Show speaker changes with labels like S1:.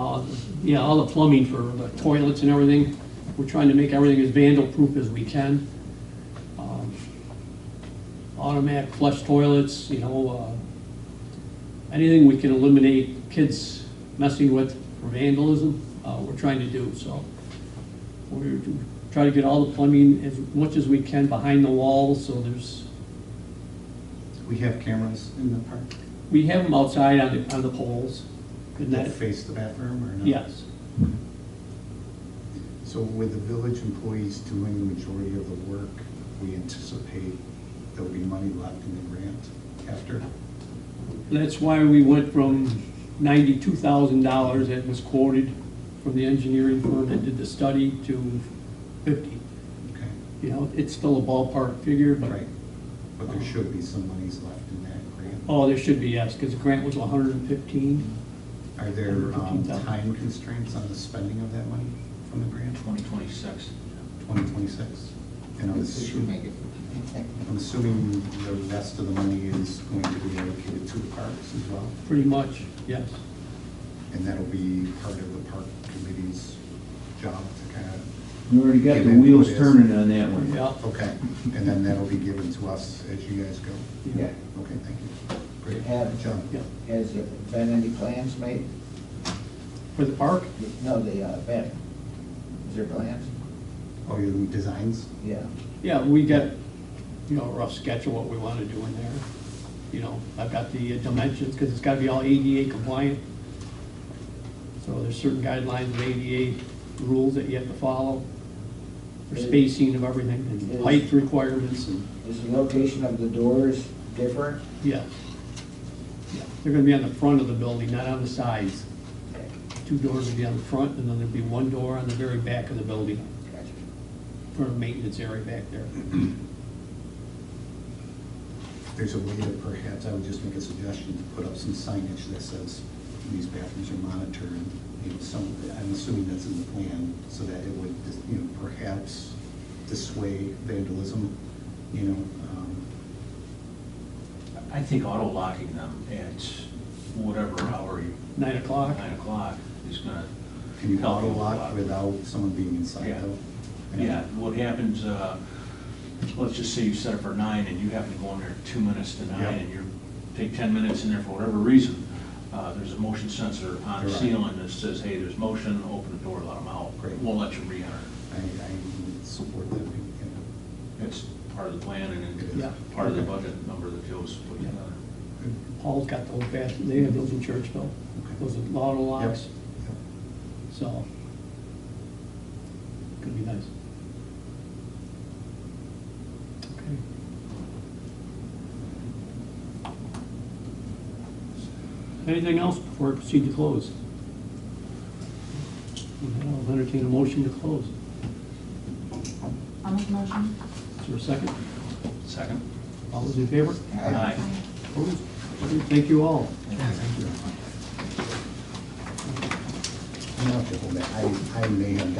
S1: uh, yeah, all the plumbing for the toilets and everything. We're trying to make everything as vandal-proof as we can. Um, Automatic flush toilets, you know, uh, anything we can eliminate kids messing with for vandalism, uh, we're trying to do, so. We're trying to get all the plumbing as much as we can behind the walls, so there's,
S2: We have cameras in the park
S1: we have them outside on the, on the poles. and
S2: that
S1: that-
S2: face the bathroom or not?
S1: Yes.
S2: So with the village employees doing the majority of the work, we anticipate there'll be money left in the grant after?
S1: That's why we went from ninety-two thousand dollars that was quoted from the engineering firm that did the study to fifty.
S2: Okay,
S1: You know, it's still a ballpark figure, but,
S2: right. But there should be some monies left in that grant.
S1: oh, there should be, yes, because the grant was hundred and fifteen.
S2: Are there um,
S1: 115,000.
S2: time constraints on the spending of that money from the grant?
S3: 2026.
S2: 2026? And I'm
S4: This should
S2: assuming,
S4: make it.
S2: I'm assuming the rest of the money is going to be allocated to the parks as well?
S1: Pretty much, yes.
S2: And that'll be part of the park committee's job to kind of,
S5: You already got the wheels turning on that one.
S1: Yeah,
S2: okay, and then that'll be given to us as you guys go.
S4: Yeah.
S2: Okay, thank you. Great.
S4: Have-
S2: John?
S1: yeah.
S4: Has there been any plans made?
S1: For the park,
S4: No, the uh, banner. Is there plans?
S2: Oh, your designs?
S4: Yeah.
S1: yeah, we got, you know, a rough sketch of what we want to do in there. You know, I've got the uh, dimensions, because it's got to be all ADA compliant. So there's certain guidelines of ADA rules that you have to follow, for spacing of everything, and height requirements, and,
S4: Is the location of the doors different?
S1: yeah. Yeah, They're gonna be on the front of the building, not on the sides. Two doors will be on the front, and then there'll be one door on the very back of the building,
S4: Gotcha.
S1: for the maintenance area back there.
S2: If There's a way to perhaps, I would just make a suggestion to put up some signage that says these bathrooms are monitored. You know, some, I'm assuming that's in the plan, so that it would, you know, perhaps dissuade vandalism, you know, um,
S3: I think auto locking them at whatever hour you.
S1: Nine o'clock?
S3: Nine o'clock is gonna.
S2: Can you
S3: help
S2: auto
S3: you a
S2: lock
S3: lot.
S2: without someone being inside
S3: Yeah.
S2: though?
S3: Yeah, what happens, uh, let's just say you set it for nine and you happen to go in there two minutes to
S2: Yeah.
S3: nine and you take ten minutes in there for whatever reason. Uh, there's a motion sensor on the
S2: Right.
S3: ceiling that says, hey, there's motion, open the door, let them out.
S2: Great.
S3: Won't let you re-enter.
S2: I, I support that. yeah.
S3: It's part of the plan and
S2: It
S3: it's
S2: is.
S1: Yeah.
S3: part of the budget number that Joe's put together.
S1: Paul's got those bathrooms, they have those in Churchville, those are auto locks,
S2: Yep.
S1: so. Could be nice. Okay.
S3: uh,
S1: Anything else before I proceed to close? I'll entertain a motion to close.
S6: I'll make a motion.
S1: Is there a second?
S3: Second?
S1: All those in favor?
S3: Aye.
S1: Opposed? Thank you all.
S2: Yeah, thank you. I'm gonna have to hold that. I, I may have